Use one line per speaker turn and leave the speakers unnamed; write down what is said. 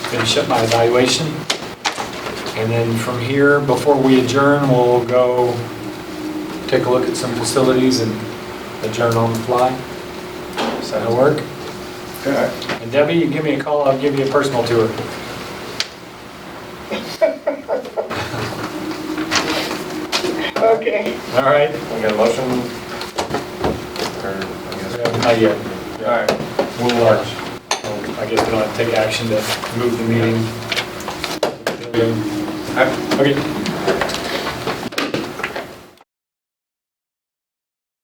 finish up my evaluation. And then from here, before we adjourn, we'll go take a look at some facilities and adjourn on the fly. Does that work?
Okay.
And Debbie, you give me a call, I'll give you a personal tour.
Okay.
All right?
We got a motion? Or, I guess.
Not yet.
All right.
We'll, uh, well, I guess we don't have to take action to move the meeting.
I-
Okay.